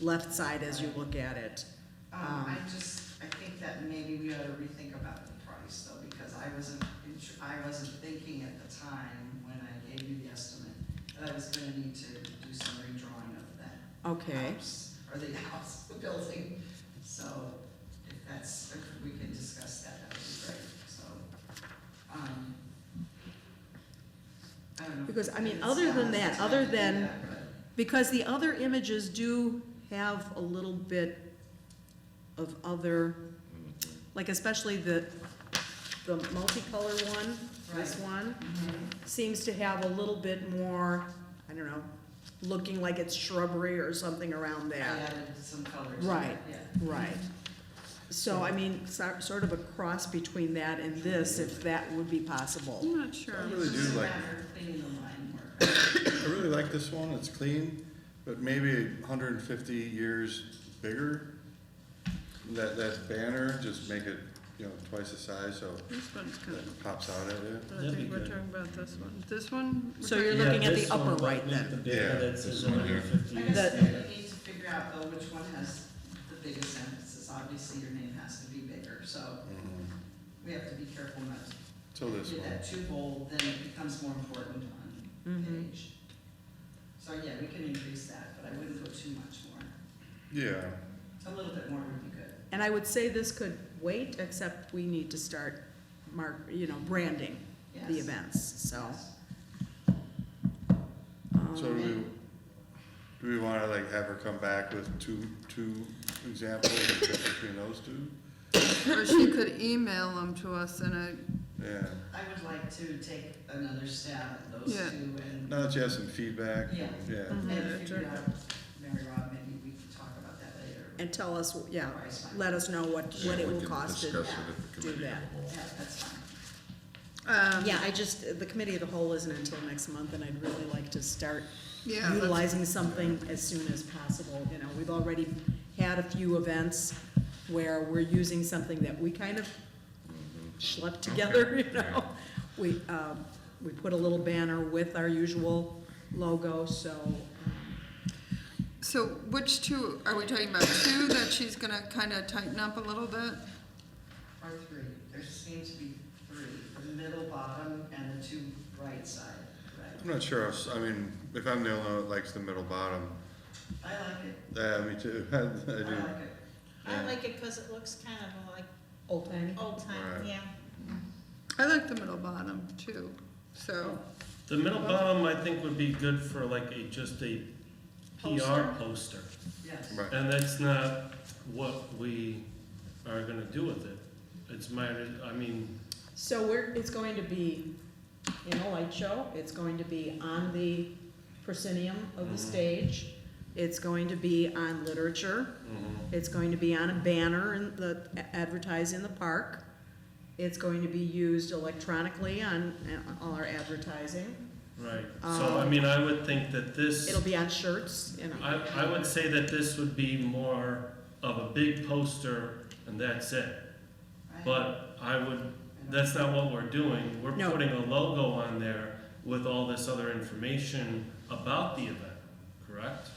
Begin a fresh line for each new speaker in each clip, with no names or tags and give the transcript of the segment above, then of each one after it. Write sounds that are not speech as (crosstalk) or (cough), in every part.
left side as you look at it.
Um, I just, I think that maybe we ought to rethink about the price though, because I wasn't, int- I wasn't thinking at the time when I gave you the estimate that I was gonna need to do some redrawing of that
Okay,
house, or the (laughs) house, the building. So if that's, if we can discuss that, that would be great, so. um, I don't know. if
Because, I mean,
it's
other than
not
that,
the time
other
to do
than-
that, but-
because the other images do have a little bit of other, like especially the, the multicolor one, this
Right.
one, Mm-hmm.
Mhm.
seems to have a little bit more, I don't know, looking like it's shrubbery or something around
I
that.
added some colors. to
Right.
it, Yeah.
Right. So, I mean, so- sort of a cross between that and this, if that would be possible.
Mm-hmm.
I'm not sure.
Um, It's
really do
just a
like-
matter of cleaning the line work.
I really like this one, it's clean, but maybe hundred and fifty years bigger. That, that banner, just make it, you know, twice the size, so
This one's kind of,
that pops out at you.
but I
That'd be
think we're
good.
talking about this one. This one? we're
So
talking-
you're
Yeah,
looking at the
this
upper
one might
right
make
then.
The
Yeah,
banner that
this
says
one here.
150.
I
That-
guess we need to figure out though which one has the biggest emphasis, obviously your name has to be bigger, so
Mhm.
we have to be careful not to
So Oh, this
do
one,
that too bold, then it becomes more important on
Mhm.
page. So yeah, we can increase that, but I wouldn't go too much more,
yeah,
a little bit more would be good.
And I would say this could wait, except we need to start mark, you know, branding
Yes.
the events, so.
Yes.
um,
so do we, do we wanna like have her come back with two, two examples of the difference between those two?
Or she could email them to us in a,
Yeah,
I would like to take another stab at those two
Yeah.
and,
now that you have some feedback,
Yeah.
yeah,
and figure out, Mary Rob, maybe we can talk about that later.
And tell us, yeah,
Price might-
let us know what, what it
we
will
can
cost to
discuss it at the
do
committee
that.
of the whole.
Yeah, that's fine.
um,
Yeah, I just, the committee of the whole isn't until next month, and I'd really like to start
yeah, that's-
utilizing something as soon as possible. You know, we've already had a few events where we're using something that we kind of schlepped together, (laughs) you know? We, um, we put a little banner with our usual logo, so,
so which two, are we talking about two that she's gonna kind of tighten up a little bit?
Or three, there seems to be three, the middle bottom and the two right side,
I'm
right?
not sure, if- I mean, if I'm the only one that likes the middle bottom,
I like it,
yeah, me too, (laughs) I
I
do.
like it.
I like it because it looks kind of like
old timey.
old time,
Right.
yeah.
I like the middle bottom too, so,
The middle bottom, I think, would be good for like a, just a PR poster.
Yes,
Right,
And that's not what we are gonna do with it. It's my, I mean,
So we're, it's going to be in a light show, it's going to be on the proscenium of the
Mhm.
stage, it's going to be on literature,
mhm.
It's going to be on a banner in the, advertised in the park. It's going to be used electronically on, on all our advertising.
right. So, I mean, I would think that this.
It'll be on shirts, you know.
I, I would say that this would be more of a big poster and that's it.
right?
But I would, that's not what we're doing. We're
No.
putting a logo on there with all this other information about the event, correct?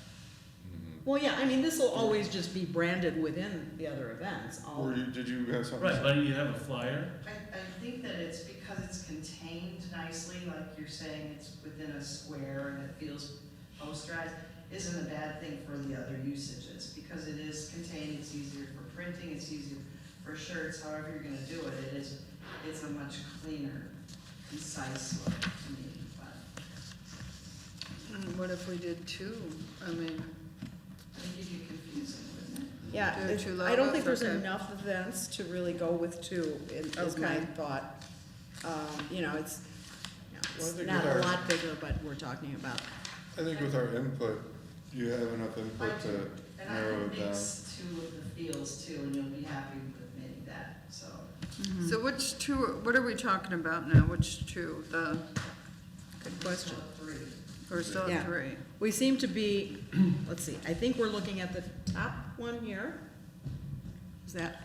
Well, yeah, I mean, this will always just be branded within the other events, all,
Or you- did you have something?
Right, but you have a flyer,
I, I think that it's because it's contained nicely, like you're saying, it's within a square and it feels posterized, isn't a bad thing for the other usages, because it is contained, it's easier for printing, it's easier for shirts, however you're gonna do it, it is, it's a much cleaner, concise look to me, but
and what if we did two? I mean,
I think it'd be confusing, wouldn't it?
yeah.
Do two
I don't think
logos,
there's
okay.
enough events to really go with two, is is my
Okay.
thought. Um, you know, it's, you know,
Well, I
it's
think
not
with
a
our-
lot bigger, but we're talking about,
I think with our input, you have enough input to
And I
narrow
can
it down.
mix two of the feels too, and you'll be happy with maybe that, so.
so which two, what are we talking about now? Which two? The,
good question.
Three.
or still
Yeah.
three?
We seem to be, (clears throat) let's see, I think we're looking at the top one here. Is that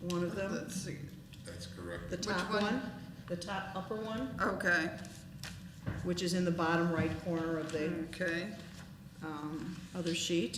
one of them?
Let's see.
That's correct.
The
Which
top
one?
one? The top upper one,
Okay, Hmm.
which is in the bottom right corner of the
okay.
um, other sheet.